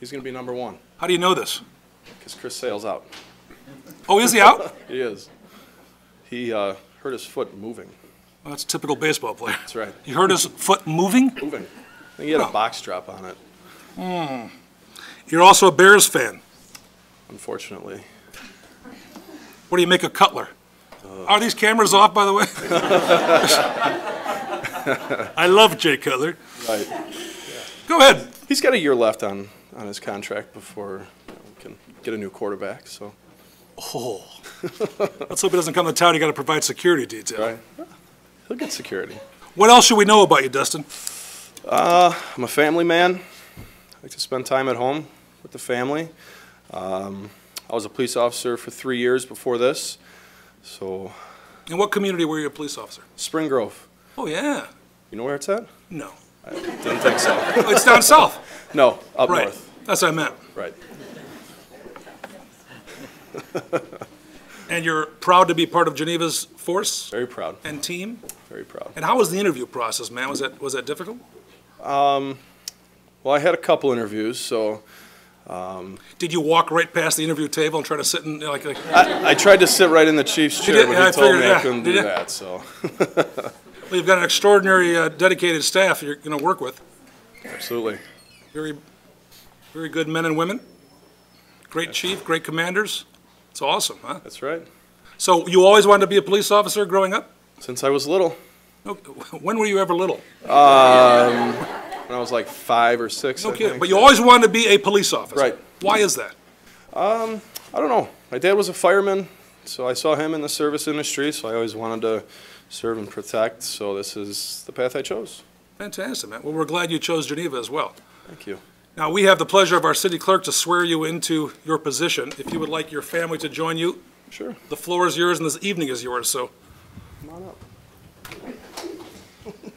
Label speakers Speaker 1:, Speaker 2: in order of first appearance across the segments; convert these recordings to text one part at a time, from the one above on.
Speaker 1: He's going to be number one
Speaker 2: How do you know this?
Speaker 1: because Chris Sale's out.
Speaker 2: Oh, is he out? Well,
Speaker 1: He is. He uh, hurt his foot moving.
Speaker 2: that's a typical baseball player.
Speaker 1: That's right.
Speaker 2: You heard his foot moving?
Speaker 1: Moving. I think he had a box drop on it,
Speaker 2: You're also a Bears fan.
Speaker 1: unfortunately.
Speaker 2: What do you make of Cutler? Are these cameras off, by the way? I love Jay Cutler.
Speaker 1: Right.
Speaker 2: Go ahead.
Speaker 1: He's got a year left on, on his contract before you know, we can get a new quarterback. So,
Speaker 2: Oh. Let's hope he doesn't come to town. You got to provide security detail.
Speaker 1: right. he'll get security.
Speaker 2: What else should we know about you, Dustin?
Speaker 1: I'm a family man. I like to spend time at home with the family. Um, I was a police officer for three years before this. So,
Speaker 2: In what community were you a police officer?
Speaker 1: Spring Grove.
Speaker 2: Oh, yeah.
Speaker 1: You know where it's at?
Speaker 2: No.
Speaker 1: Didn't think so.
Speaker 2: Oh, It's down south.
Speaker 1: No, up
Speaker 2: Right.
Speaker 1: north.
Speaker 2: That's what I meant.
Speaker 1: Right.
Speaker 2: And you're proud to be part of Geneva's force
Speaker 1: Very proud.
Speaker 2: and team?
Speaker 1: Very proud.
Speaker 2: And how was the interview process, man? Was that, was that difficult?
Speaker 1: Well, I had a couple interviews, so
Speaker 2: Did you walk right past the interview table and try to sit in, like, like
Speaker 1: I, I tried to sit right in the chief's chair,
Speaker 2: did-
Speaker 1: but he
Speaker 2: yeah, I
Speaker 1: told
Speaker 2: figured-
Speaker 1: me
Speaker 2: yeah,
Speaker 1: I couldn't
Speaker 2: did
Speaker 1: do
Speaker 2: it?
Speaker 1: that. So,
Speaker 2: well, you've got an extraordinary uh, dedicated staff you're going to work with.
Speaker 1: absolutely.
Speaker 2: Very, very good men and women. Great chief, great commanders. It's awesome, huh?
Speaker 1: That's right.
Speaker 2: So you always wanted to be a police officer growing up?
Speaker 1: Since I was little,
Speaker 2: No- When were you ever little?
Speaker 1: when I was like five or six.
Speaker 2: No
Speaker 1: I
Speaker 2: kidding.
Speaker 1: think.
Speaker 2: But you always wanted to be a police officer.
Speaker 1: Right.
Speaker 2: Why is that?
Speaker 1: I don't know. My dad was a fireman, so I saw him in the service industry, so I always wanted to serve and protect, so this is the path I chose.
Speaker 2: Fantastic, man. Well, we're glad you chose Geneva as well.
Speaker 1: Thank you.
Speaker 2: Now, we have the pleasure of our city clerk to swear you into your position. If you would like your family to join you,
Speaker 1: Sure.
Speaker 2: the floor is yours and this evening is yours, so.
Speaker 1: Come on up.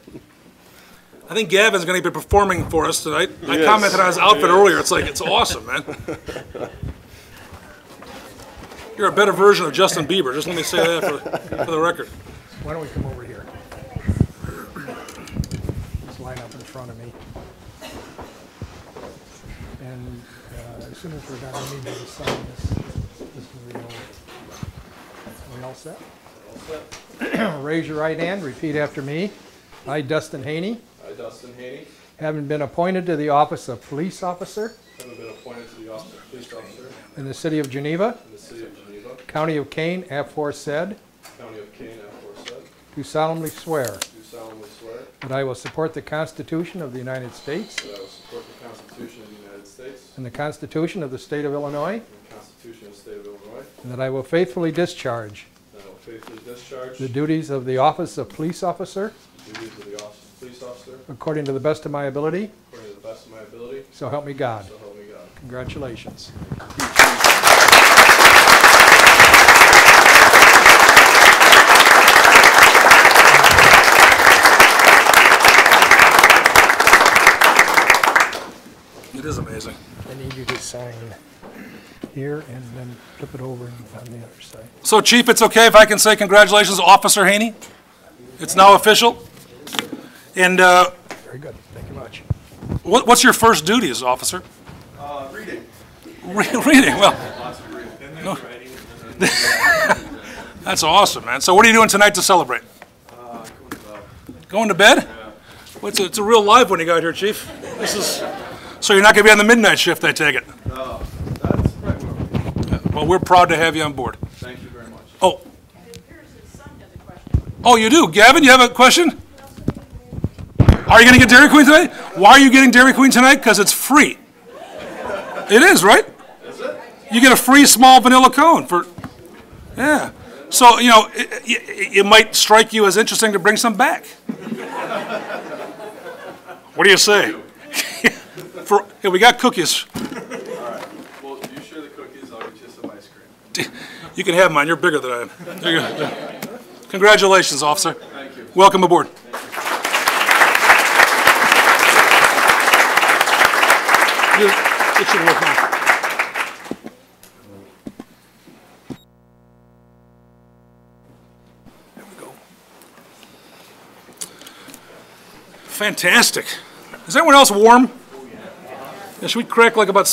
Speaker 2: I think Gavin's going to be performing for us tonight. I
Speaker 1: Yes.
Speaker 2: commented on his outfit earlier. It's like, it's awesome, man. You're a better version of Justin Bieber, just let me say that for, for the record.
Speaker 3: Why don't we come over here? Just line up in front of me. And uh, as soon as we're done, we need you to sign this. This is the old. Are we all set? Raise your right hand, repeat after me. I, Dustin Haney,
Speaker 1: I, Dustin Haney,
Speaker 3: having been appointed to the office of police officer
Speaker 1: having been appointed to the office of police officer
Speaker 3: in the city of Geneva,
Speaker 1: in the city of Geneva,
Speaker 3: county of Kane, aforesaid,
Speaker 1: county of Kane, aforesaid,
Speaker 3: do solemnly swear
Speaker 1: do solemnly swear
Speaker 3: that I will support the Constitution of the United States
Speaker 1: that I will support the Constitution of the United States
Speaker 3: And the Constitution of the State of Illinois.
Speaker 1: and the Constitution of the State of Illinois,
Speaker 3: And that I will faithfully discharge
Speaker 1: and I will faithfully discharge
Speaker 3: the
Speaker 1: the
Speaker 3: duties of the office of police officer
Speaker 1: duties of the office of police officer
Speaker 3: according to the best of my ability.
Speaker 1: according to the best of my ability,
Speaker 3: So help me God.
Speaker 1: so help me God.
Speaker 3: Congratulations.
Speaker 2: It is amazing.
Speaker 3: I need you to sign here and then flip it over on the other side.
Speaker 2: So Chief, it's okay if I can say congratulations, Officer Haney? It's now official? And uh,
Speaker 3: Very good. Thank you much.
Speaker 2: what- what's your first duty as officer?
Speaker 1: Uh, reading.
Speaker 2: Re- Reading, well,
Speaker 1: Lots of reading. Then there's writing, and then
Speaker 2: that's awesome, man. So what are you doing tonight to celebrate? Uh, Going to bed? Well, it's a, it's a real live one you got here, Chief. This is, so you're not going to be on the midnight shift, I take it?
Speaker 1: That's right. Well,
Speaker 2: Well, we're proud to have you on board.
Speaker 1: Thank you very much.
Speaker 2: Oh,
Speaker 4: It appears his son has a question.
Speaker 2: oh, you do? Gavin, you have a question? Are you going to get Dairy Queen tonight? Why are you getting Dairy Queen tonight? Because it's free. It is, right?
Speaker 1: Is it?
Speaker 2: You get a free small vanilla cone for, yeah. So, you know, it, it, it might strike you as interesting to bring some back. What do you say? For, yeah, we got cookies.
Speaker 1: Well, you share the cookies, I'll get you some ice cream.
Speaker 2: You can have mine, you're bigger than I am. There you go. Congratulations, officer.
Speaker 1: Thank you.
Speaker 2: Welcome aboard. You- it should work now. There we go. Oh, Fantastic. Is anyone else warm? Yeah, Should we crack like about